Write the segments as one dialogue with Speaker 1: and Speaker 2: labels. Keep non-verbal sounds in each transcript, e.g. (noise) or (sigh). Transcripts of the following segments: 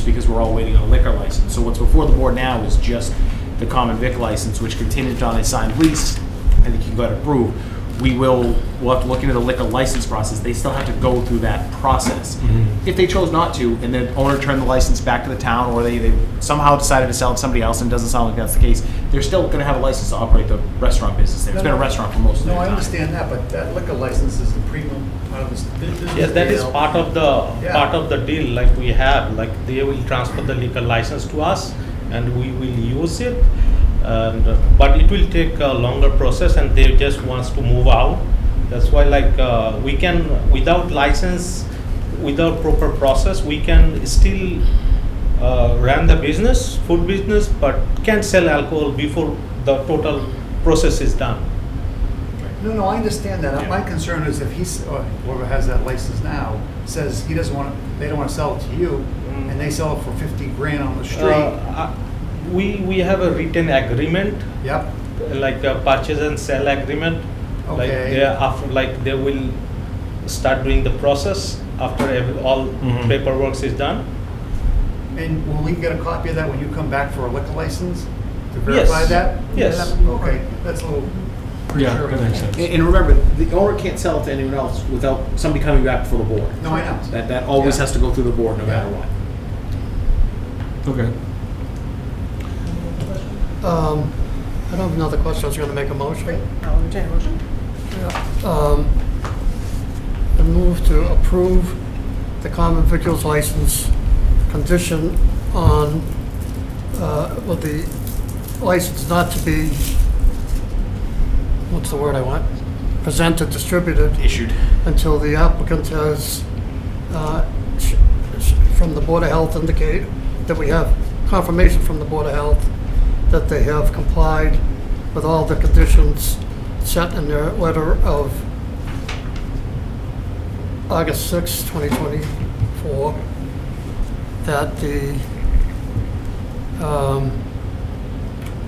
Speaker 1: because we're all waiting on a liquor license. So what's before the board now is just the common vic license, which contingent on a signed lease, I think you got approved. We will, we'll have to look into the liquor license process. They still have to go through that process. If they chose not to, and the owner turned the license back to the town, or they, they somehow decided to sell it to somebody else, and it doesn't sound like that's the case, they're still gonna have a license to operate the restaurant business there. It's been a restaurant for most of the
Speaker 2: No,
Speaker 1: time.
Speaker 2: I understand that, but that liquor license is the premium part of this.
Speaker 3: Yes, that is part of the,
Speaker 2: Yeah.
Speaker 3: part of the deal, like we have, like they will transfer the liquor license to us and we will use it. And, uh, but it will take a longer process and they just wants to move out. That's why like, uh, we can, without license, without proper process, we can still, uh, run the business, food business, but can't sell alcohol before the total process is done.
Speaker 2: No, no, I understand that.
Speaker 1: Yeah.
Speaker 2: My concern is if he's, or whoever has that license now, says he doesn't want, they don't want to sell it to you,
Speaker 3: Mm.
Speaker 2: and they sell it for 50 grand on the
Speaker 3: Uh,
Speaker 2: street.
Speaker 3: I- We, we have a written agreement
Speaker 2: Yep,
Speaker 3: like a purchase and sell agreement. Like
Speaker 2: Okay.
Speaker 3: they are after, like they will start doing the process after every, all
Speaker 4: Mm-hmm.
Speaker 1: Mhm.
Speaker 3: paperwork is done.
Speaker 2: and will we get a copy of that when you come back for a liquor license? To verify
Speaker 3: Yes.
Speaker 2: that?
Speaker 3: Yes.
Speaker 2: Okay, that's a little
Speaker 1: Yeah,
Speaker 2: premature.
Speaker 1: that makes sense. And and remember, the owner can't sell it to anyone else without somebody coming back before the board.
Speaker 2: No, I know.
Speaker 1: That, that always
Speaker 2: Yeah.
Speaker 1: has to go through the board, no matter
Speaker 2: Yeah.
Speaker 1: what.
Speaker 4: Okay.
Speaker 5: Um, I don't have another question, I was gonna make a motion.
Speaker 6: I'll entertain a motion.
Speaker 5: Um, I move to approve the common vicular's license condition on, uh, well, the license not to be, what's the word I want? Presented, distributed
Speaker 1: Issued.
Speaker 5: until the applicant has, uh, sh- sh- from the Board of Health indicate that we have confirmation from the Board of Health that they have complied with all the conditions set in their letter of August 6, 2024, that the um,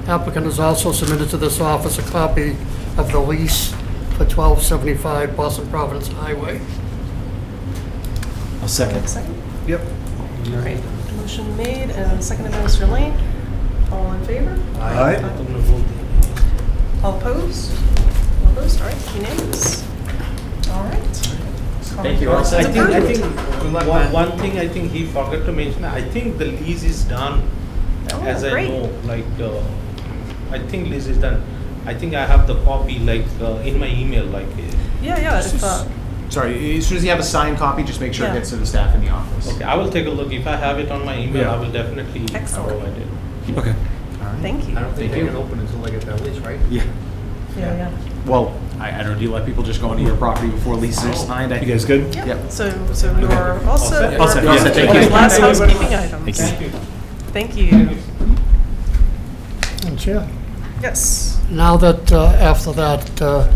Speaker 5: applicant has also submitted to this office a copy of the lease for 1275 Boston Providence Highway.
Speaker 1: A second.
Speaker 6: Second.
Speaker 5: Yep.
Speaker 6: All right. Motion made and seconded by Mr. Lane. All in favor?
Speaker 4: Aye.
Speaker 6: All opposed? All opposed? All right. Unanimous. All right.
Speaker 1: Thank you.
Speaker 6: Comments?
Speaker 3: I think, I
Speaker 6: Approved.
Speaker 3: think,
Speaker 2: Good luck,
Speaker 3: one,
Speaker 2: man.
Speaker 3: one thing I think he forgot to mention, I think the lease is done
Speaker 6: Oh,
Speaker 3: as I
Speaker 6: great.
Speaker 3: know, like, uh, I think lease is done. I think I have the copy like uh, in my email, like. uh,
Speaker 6: Yeah, yeah. if, uh,
Speaker 1: Sorry, as soon as you have a signed copy, just make sure it
Speaker 6: Yeah.
Speaker 1: gets to the staff in the office.
Speaker 3: Okay, I will take a look. If I have it on my email, I
Speaker 4: Yeah.
Speaker 3: will definitely
Speaker 6: Excellent.
Speaker 3: provide it.
Speaker 4: Okay.
Speaker 6: Thank you.
Speaker 2: I don't
Speaker 1: Thank
Speaker 2: think they
Speaker 1: you.
Speaker 2: can open until they get that lease, right?
Speaker 1: Yeah,
Speaker 6: Yeah, yeah.
Speaker 1: well, I, I don't, do you let people just go into your property before leases are signed? I
Speaker 4: You guys good?
Speaker 6: Yeah,
Speaker 1: Yep.
Speaker 6: so, so you are
Speaker 3: All
Speaker 6: also.
Speaker 3: set. All
Speaker 1: set,
Speaker 6: you're-
Speaker 1: yeah, thank
Speaker 6: okay,
Speaker 1: you.
Speaker 6: Last housekeeping items.
Speaker 3: Thank you.
Speaker 6: Thank you.
Speaker 5: And Chair,
Speaker 6: Yes.
Speaker 5: now that, uh, after that uh,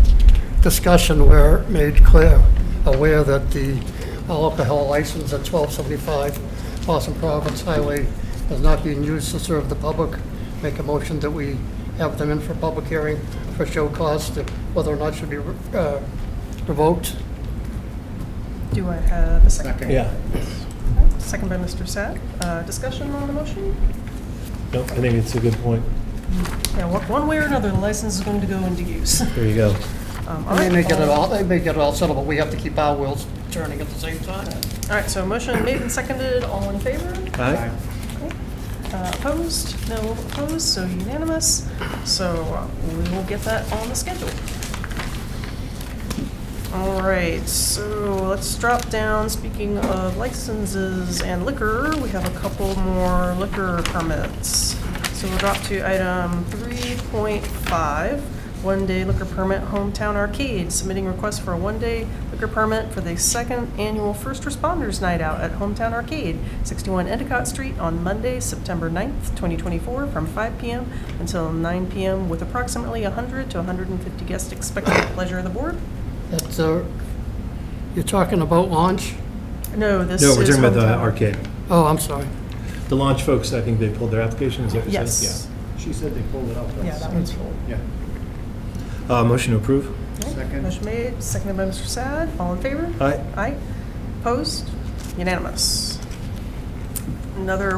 Speaker 5: discussion, we're made clear, aware that the alcohol license at 1275 Boston Providence Highway is not being used to serve the public, make a motion that we have them in for public hearing for show cause, that whether or not should be re- uh, revoked.
Speaker 6: Do I have a second?
Speaker 2: Second.
Speaker 4: Yeah.
Speaker 6: Second by Mr. Sad. Uh, Discussion on the motion?
Speaker 4: No, I think it's a good point.
Speaker 6: Yeah, one one way or another, the license is going to go into use.
Speaker 4: (laughs) There you go.
Speaker 6: Um, all
Speaker 5: And they
Speaker 6: right,
Speaker 5: may get it
Speaker 6: all-
Speaker 5: all, they may get it all settled, but we have to keep our wheels turning at the same time.
Speaker 6: All right, so motion made and seconded, all in favor?
Speaker 4: All right.
Speaker 6: Uh, Opposed? No opposed, so unanimous. So uh, we will get that on the schedule. All right, so let's drop down, speaking of licenses and liquor, we have a couple more liquor permits. So we'll drop to item 3.5, one-day liquor permit Hometown Arcade, submitting request for a one-day liquor permit for the second annual First Responders Night Out at Hometown Arcade, 61 Endicott Street, on Monday, September 9th, 2024, from 5 PM until 9 PM, with approximately 100 to 150 guests expected. Pleasure of the board.
Speaker 5: That's, uh, you're talking about launch?
Speaker 6: No, this
Speaker 4: No, we're
Speaker 6: is
Speaker 4: talking about the
Speaker 6: hometown.
Speaker 4: arcade.
Speaker 5: Oh, I'm sorry.
Speaker 4: The launch folks, I think they pulled their application, is that what you said?
Speaker 6: Yes.
Speaker 2: She said they pulled it out.
Speaker 6: Yeah, that one's full.
Speaker 2: Yeah.
Speaker 4: Yeah. Uh, motion to approve?
Speaker 2: Second.
Speaker 6: Motion made, seconded by Mr. Sad. All in favor?
Speaker 4: Aye.
Speaker 6: Aye. Opposed? Unanimous. Another